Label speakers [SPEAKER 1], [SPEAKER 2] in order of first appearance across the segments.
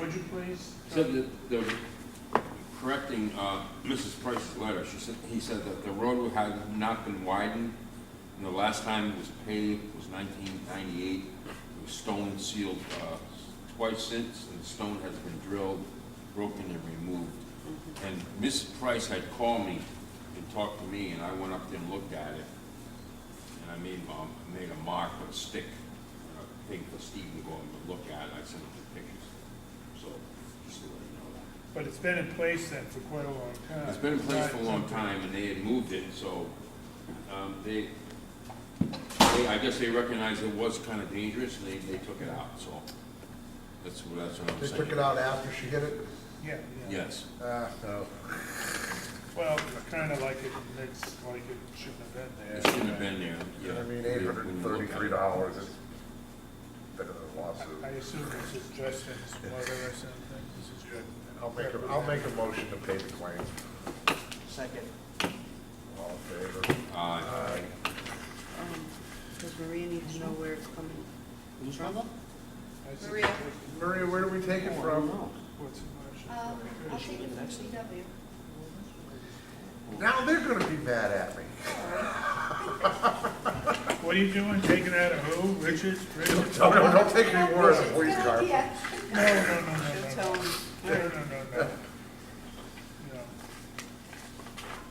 [SPEAKER 1] would you please?
[SPEAKER 2] Said that they were correcting uh, Mrs. Price's letter. She said, he said that the road had not been widened, and the last time it was paved was 1998. It was stone sealed uh, twice since, and the stone has been drilled, broken, and removed. And Mrs. Price had called me and talked to me, and I went up there and looked at it. And I made, um, I made a mark with a stick, and I paid for Steve to go and look at it. I sent him the pictures. So, just to let you know that.
[SPEAKER 1] But it's been in place then for quite a long time.
[SPEAKER 2] It's been in place
[SPEAKER 1] Not
[SPEAKER 2] for a long
[SPEAKER 1] something-
[SPEAKER 2] time, and they had moved it, so, um, they, they, I guess they recognized it was kind of dangerous, and they, they took it out, so. That's what, that's what I'm
[SPEAKER 3] They
[SPEAKER 2] saying.
[SPEAKER 3] took it out after she hit it?
[SPEAKER 1] Yeah, yeah.
[SPEAKER 2] Yes,
[SPEAKER 3] Uh, no.
[SPEAKER 1] Well, kind of like it makes, like it shouldn't have been there.
[SPEAKER 2] it shouldn't have been there, yeah.
[SPEAKER 3] I mean,
[SPEAKER 2] When
[SPEAKER 3] eight
[SPEAKER 2] you
[SPEAKER 3] hundred and
[SPEAKER 2] look at
[SPEAKER 3] thirty-three
[SPEAKER 2] it.
[SPEAKER 3] dollars is better than a lawsuit.
[SPEAKER 1] I assume this is Justin's mother or something, this is your.
[SPEAKER 3] I'll make, a- I'll make a motion to pay the claim.
[SPEAKER 4] Second.
[SPEAKER 3] All in favor?
[SPEAKER 2] Uh,
[SPEAKER 3] Aye.
[SPEAKER 5] Does Maria need to know where it's coming from?
[SPEAKER 1] I see.
[SPEAKER 5] Maria.
[SPEAKER 3] Maria, where do we take it from?
[SPEAKER 1] What's the motion?
[SPEAKER 6] Um, I'll take it
[SPEAKER 4] Should we
[SPEAKER 6] from
[SPEAKER 4] next?
[SPEAKER 6] DW.
[SPEAKER 3] Now they're gonna be mad at me.
[SPEAKER 1] What are you doing, taking out of who, Richards, Richards?
[SPEAKER 3] No, no, don't take any more
[SPEAKER 6] It's
[SPEAKER 3] than
[SPEAKER 6] a
[SPEAKER 3] police
[SPEAKER 6] good
[SPEAKER 3] car.
[SPEAKER 6] idea.
[SPEAKER 1] No, no, no, no, no.
[SPEAKER 5] She'll tell him.
[SPEAKER 1] No, no, no, no. No.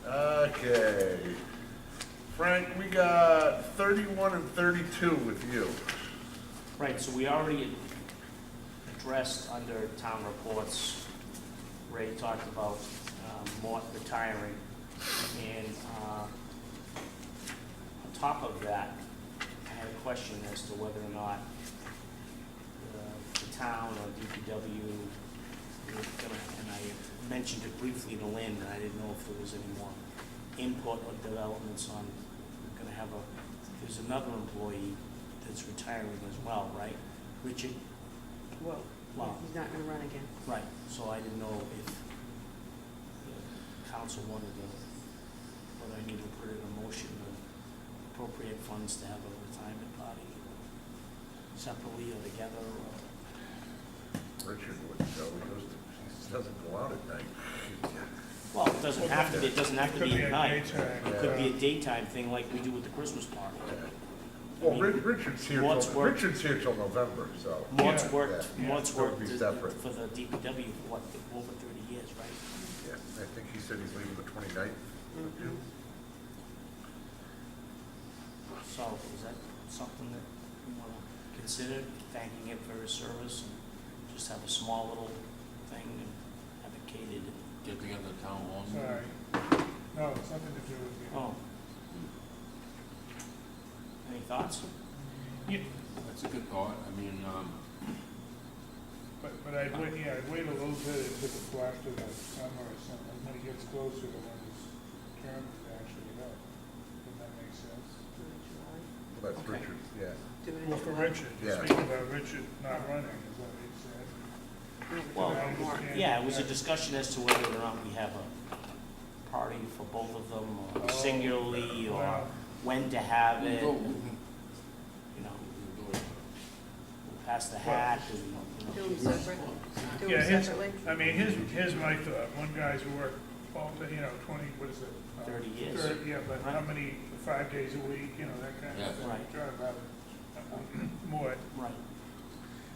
[SPEAKER 3] Okay. Frank, we got thirty-one and thirty-two with you.
[SPEAKER 4] Right, so we already addressed under town reports, Ray talked about um, Mort retiring, and uh, on top of that, I had a question as to whether or not uh, the town or DPW, was gonna- and I mentioned it briefly to Lynn, and I didn't know if there was any more input or developments on, we're gonna have a, there's another employee that's retiring as well, right? Richard?
[SPEAKER 5] Well,
[SPEAKER 4] Wow.
[SPEAKER 5] he's not gonna run again.
[SPEAKER 4] Right. So I didn't know if the council wanted to, whether I need to put in a motion to appropriate funds to have a retirement party separately or together, or,
[SPEAKER 3] Richard wouldn't go, he goes, to- he doesn't go out at night.
[SPEAKER 4] well, it doesn't have to be, it doesn't have to
[SPEAKER 1] Could
[SPEAKER 4] be
[SPEAKER 1] be a
[SPEAKER 4] at night.
[SPEAKER 1] daytime,
[SPEAKER 4] It could be
[SPEAKER 1] uh,
[SPEAKER 4] a daytime thing like we do with the Christmas party.
[SPEAKER 3] Well, Ri- Richard's here,
[SPEAKER 4] Mort's
[SPEAKER 3] till-
[SPEAKER 4] work-
[SPEAKER 3] Richard's here till November, so.
[SPEAKER 4] Mort's
[SPEAKER 1] Yeah.
[SPEAKER 4] worked,
[SPEAKER 1] Yeah.
[SPEAKER 4] Mort's
[SPEAKER 3] That would
[SPEAKER 4] worked
[SPEAKER 3] be
[SPEAKER 4] for
[SPEAKER 3] separate.
[SPEAKER 4] the DPW for what, over thirty years, right?
[SPEAKER 3] Yeah, I think he said he's leaving the 29th.
[SPEAKER 5] Mhm.
[SPEAKER 4] So is that something that you want to consider, thanking him for his service and just have a small little thing and have it catered?
[SPEAKER 2] Get together at town hall.
[SPEAKER 1] Sorry. No, it's nothing to do with you.
[SPEAKER 4] Oh. Any thoughts?
[SPEAKER 2] That's a good thought, I mean, um,
[SPEAKER 1] But, but I'd wait, yeah, I'd wait a little bit until the- after the summer or something, when it gets closer to when his term is actually up. Does that make sense?
[SPEAKER 5] Do it in July.
[SPEAKER 3] Well, that's
[SPEAKER 4] Okay.
[SPEAKER 3] Richard, yeah.
[SPEAKER 5] Do it in
[SPEAKER 1] Well, for
[SPEAKER 5] July.
[SPEAKER 1] Richard,
[SPEAKER 3] Yeah.
[SPEAKER 1] speaking about Richard not running, is what he said.
[SPEAKER 4] Well,
[SPEAKER 1] I understand
[SPEAKER 4] Yeah, it was a
[SPEAKER 1] that.
[SPEAKER 4] discussion as to whether or not we have a party for both of them or singularly
[SPEAKER 1] Oh,
[SPEAKER 4] or
[SPEAKER 1] Well,
[SPEAKER 4] when to have
[SPEAKER 2] we
[SPEAKER 4] it,
[SPEAKER 2] go, we
[SPEAKER 4] you
[SPEAKER 2] can-
[SPEAKER 4] know,
[SPEAKER 2] we can go.
[SPEAKER 4] pass the hat and,
[SPEAKER 5] Do
[SPEAKER 4] you know.
[SPEAKER 5] them separate, do
[SPEAKER 1] Yeah,
[SPEAKER 5] them
[SPEAKER 1] his-
[SPEAKER 5] separately.
[SPEAKER 1] I mean, here's, here's my thought, one guy's worked all, day, you know, twenty, what is it? uh,
[SPEAKER 4] 30 years.
[SPEAKER 1] thirty, Yeah, but how
[SPEAKER 4] Right.
[SPEAKER 1] many, five days a week, you know, that kind
[SPEAKER 2] Yeah.
[SPEAKER 1] of thing.
[SPEAKER 4] Right.
[SPEAKER 1] Drive out, uh, More,
[SPEAKER 4] Right.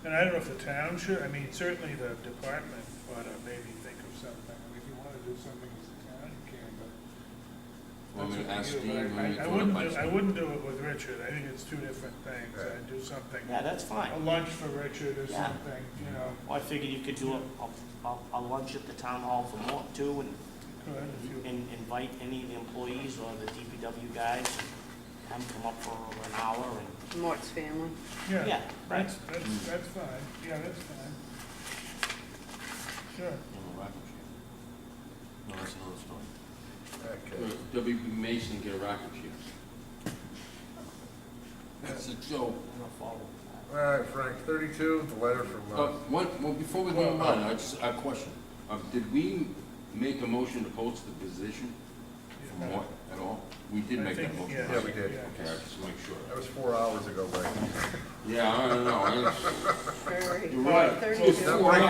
[SPEAKER 1] And I don't know if the town should, I mean, certainly the department ought to maybe think of something, I mean, if you wanna do something as a town, you can, but.
[SPEAKER 2] Want me to
[SPEAKER 1] that's
[SPEAKER 2] ask
[SPEAKER 1] up
[SPEAKER 2] Steve?
[SPEAKER 1] to you,
[SPEAKER 2] want
[SPEAKER 1] but I-
[SPEAKER 2] me
[SPEAKER 1] I-
[SPEAKER 2] to
[SPEAKER 1] I
[SPEAKER 2] throw it
[SPEAKER 1] wouldn't
[SPEAKER 2] by
[SPEAKER 1] do, I
[SPEAKER 2] Steve?
[SPEAKER 1] wouldn't do it with Richard, I think it's two different things,
[SPEAKER 3] Right.
[SPEAKER 1] I'd do something,
[SPEAKER 4] Yeah, that's fine.
[SPEAKER 1] a lunch for Richard or
[SPEAKER 4] Yeah.
[SPEAKER 1] something, you know,
[SPEAKER 4] Well, I figured you could do a, a- a, a lunch at the town hall for more too and
[SPEAKER 1] could, if you,
[SPEAKER 4] and invite any of the employees or the DPW guys, have them come up for an hour and,
[SPEAKER 5] Mort's family.
[SPEAKER 1] yeah,
[SPEAKER 4] yeah, right?
[SPEAKER 1] that's, that's, that's fine, yeah, that's fine. Sure,
[SPEAKER 2] You know, rocket ship. No, that's another story.
[SPEAKER 3] Okay.
[SPEAKER 2] W.B. Mason get a rocket ship. That's a joke.
[SPEAKER 4] I'm gonna follow that.
[SPEAKER 3] All right, Frank, 32, the letter from,
[SPEAKER 2] Uh,
[SPEAKER 3] uh,
[SPEAKER 2] one, well, before we go on, I just, a question. Uh, did we make a motion to post the position for
[SPEAKER 1] Yeah.
[SPEAKER 2] Mort at all? We did
[SPEAKER 1] I
[SPEAKER 2] make that
[SPEAKER 1] think-
[SPEAKER 2] motion.
[SPEAKER 1] yeah.
[SPEAKER 2] right?
[SPEAKER 3] Yeah, we did.
[SPEAKER 2] Okay, I just make sure.
[SPEAKER 3] that was four hours ago, Frank.
[SPEAKER 2] Yeah, I don't know. I-
[SPEAKER 5] Very-
[SPEAKER 2] You're right.
[SPEAKER 5] Thirty-two.
[SPEAKER 2] It's four